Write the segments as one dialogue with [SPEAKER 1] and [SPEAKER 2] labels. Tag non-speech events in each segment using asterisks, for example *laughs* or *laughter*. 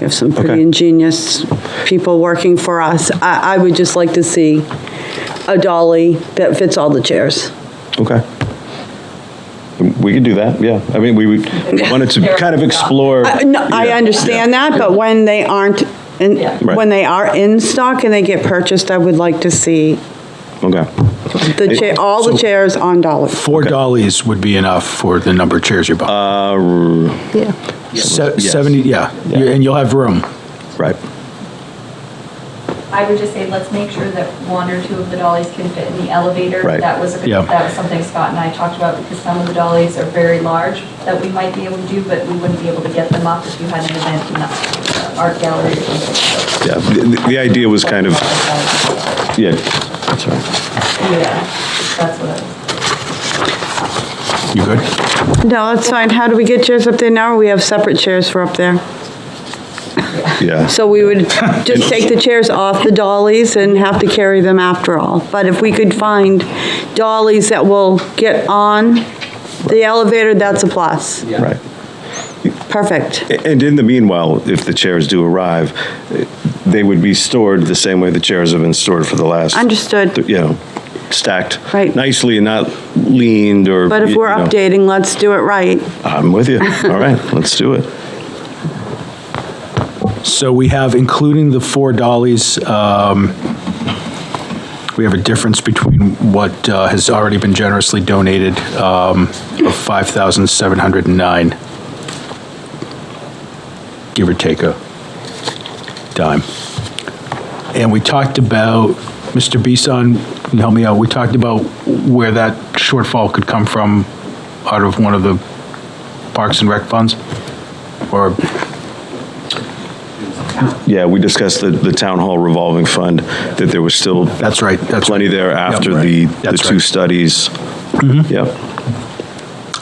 [SPEAKER 1] have some
[SPEAKER 2] Okay.
[SPEAKER 1] pretty ingenious people working for us. I, I would just like to see a dolly that fits all the chairs.
[SPEAKER 2] Okay. We could do that, yeah. I mean, we would- wanted to kind of explore.
[SPEAKER 1] I- no, I
[SPEAKER 2] Yeah,
[SPEAKER 1] understand
[SPEAKER 2] yeah,
[SPEAKER 1] that,
[SPEAKER 2] yeah.
[SPEAKER 1] but when they aren't, in
[SPEAKER 2] Right.
[SPEAKER 1] when they are in stock and they get purchased, I would like to see
[SPEAKER 2] Okay,
[SPEAKER 1] the chair, all the chairs on dolly.
[SPEAKER 3] Four dollies would be enough for the number of chairs you're buying. Se-
[SPEAKER 2] Uh, yes.
[SPEAKER 3] Seventy, yeah,
[SPEAKER 2] Yeah.
[SPEAKER 3] You- and you'll have room.
[SPEAKER 2] right.
[SPEAKER 4] I would just say, let's make sure that one or two of the dollies can fit in the elevator.
[SPEAKER 2] Right.
[SPEAKER 4] That was,
[SPEAKER 3] Yeah.
[SPEAKER 4] that was something Scott and I talked about, because some of the dollies are very large that we might be able to do, but we wouldn't be able to get them up if you had an event in the art gallery or something.
[SPEAKER 2] Yeah, the, the idea was kind of, yeah, sorry.
[SPEAKER 4] Yeah, that's what I was.
[SPEAKER 3] You good?
[SPEAKER 1] No, that's fine. How do we get chairs up there now? We have separate chairs for up there.
[SPEAKER 2] yeah.
[SPEAKER 1] So we would just take the chairs off the dollies and have to carry them after all. But if we could find dollies that will get on the elevator, that's a plus.
[SPEAKER 2] Right.
[SPEAKER 1] Perfect.
[SPEAKER 2] A- And in the meanwhile, if the chairs do arrive, eh, they would be stored the same way the chairs have been stored for the last.
[SPEAKER 1] Understood.
[SPEAKER 2] You know, stacked.
[SPEAKER 1] Right.
[SPEAKER 2] Nicely and not leaned or.
[SPEAKER 1] But if
[SPEAKER 2] you
[SPEAKER 1] we're
[SPEAKER 2] know.
[SPEAKER 1] updating, let's do it right.
[SPEAKER 2] I'm
[SPEAKER 1] *laughs*
[SPEAKER 2] with you. All right, let's do it.
[SPEAKER 3] So we have, including the four dollies, um, we have a difference between what uh, has already been generously donated um, of five thousand seven hundred and nine, give or take a dime. And we talked about, Mr. Bisson, can you help me out, we talked about where that shortfall could come from out of one of the Parks and Rec funds? Or
[SPEAKER 2] Yeah, we discussed the, the town hall revolving fund, that there was still.
[SPEAKER 3] That's right, that's
[SPEAKER 2] Plenty
[SPEAKER 3] right.
[SPEAKER 2] there after
[SPEAKER 3] Yep.
[SPEAKER 2] the, the
[SPEAKER 3] That's
[SPEAKER 2] two
[SPEAKER 3] right. Mm-hmm.
[SPEAKER 2] studies. Yep.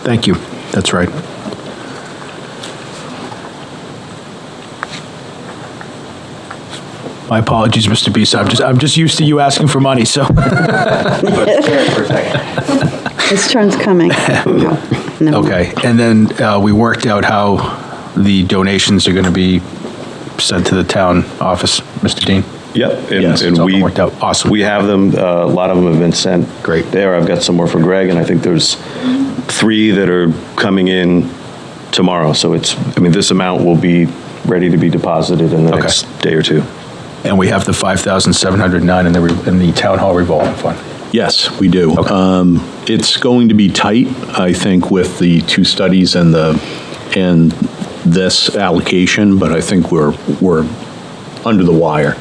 [SPEAKER 3] Thank you. That's right. My apologies, Mr. Beeson. I'm just, I'm just used to you asking for money, so.
[SPEAKER 1] This turn's coming. No.
[SPEAKER 3] *laughs* Okay, and then uh, we worked out how the donations are going to be sent to the town office, Mr. Dean.
[SPEAKER 2] Yep, and-
[SPEAKER 3] Yes, it's
[SPEAKER 2] and
[SPEAKER 3] all
[SPEAKER 2] we,
[SPEAKER 3] been worked out. Awesome.
[SPEAKER 2] we have them, uh, a lot of them have been sent.
[SPEAKER 3] Great.
[SPEAKER 2] There, I've got some more for Greg, and I think there's three that are coming in tomorrow. So it's, I mean, this amount will be ready to be deposited in the
[SPEAKER 3] Okay.
[SPEAKER 2] next day or two.
[SPEAKER 3] And we have the 5,709 in the, re- in the town hall revolving fund.
[SPEAKER 5] Yes, we do. Um, It's going to be tight, I think, with the two studies and the, and this allocation, but I think we're, we're under the wire.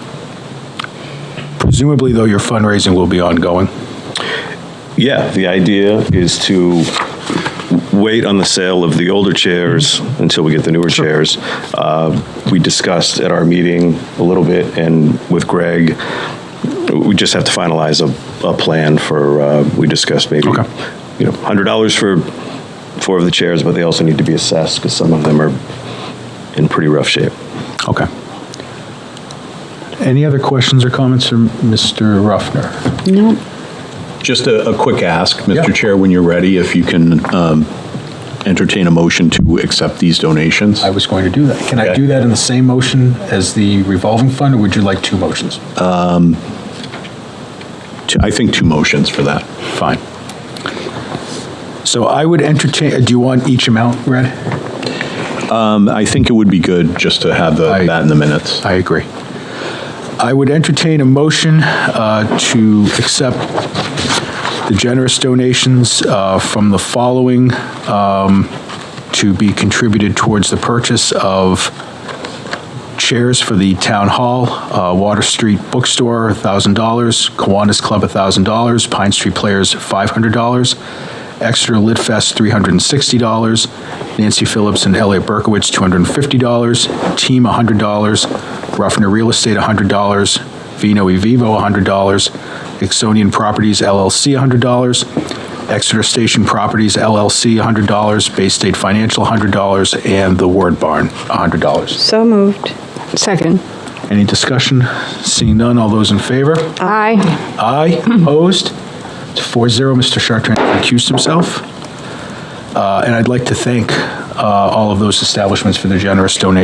[SPEAKER 3] Presumably, though, your fundraising will be ongoing.
[SPEAKER 2] Yeah, the idea is to wait on the sale of the older chairs until we get the newer chairs. Uh, We discussed at our meeting a little bit, and with Greg, we just have to finalize a, a plan for, uh, we discussed maybe,
[SPEAKER 3] Okay.
[SPEAKER 2] you know, $100 for four of the chairs, but they also need to be assessed, because some of them are in pretty rough shape.
[SPEAKER 3] Okay. Any other questions or comments from Mr. Ruffner?
[SPEAKER 5] Just a, a quick ask,
[SPEAKER 3] Yeah.
[SPEAKER 5] Mr. Chair, when you're ready, if you can um, entertain a motion to accept these donations.
[SPEAKER 3] I was going to do that. Can I
[SPEAKER 5] Okay.
[SPEAKER 3] do that in the same motion as the revolving fund, or would you like two motions?
[SPEAKER 5] Two- I think two motions for that.
[SPEAKER 3] Fine. So I would entertain, do you want each amount read?
[SPEAKER 5] Um, I think it would be good just to have the-
[SPEAKER 3] I-
[SPEAKER 5] that in the minutes.
[SPEAKER 3] I agree. I would entertain a motion uh, to accept the generous donations uh, from the following um, to be contributed towards the purchase of chairs for the Town Hall, uh, Water Street Bookstore, $1,000, Kiwanis Club, $1,000, Pine Street Players, $500, Exeter Lit Fest, $360, Nancy Phillips and Elliot Berkowitz, $250, Team, $100, Ruffner Real Estate, $100, Vino e Vivo, $100, Exonian Properties LLC, $100, Exeter Station Properties LLC, $100, Bay State Financial, $100, and The Word Barn, $100.
[SPEAKER 1] So moved.
[SPEAKER 6] Second.
[SPEAKER 3] Any discussion? Seeing none, all those in favor?
[SPEAKER 6] Aye.
[SPEAKER 3] Aye, opposed? It's 4-0, Mr. Chartrand recused himself. Uh, And I'd like to thank uh, all of those establishments for their generous donations.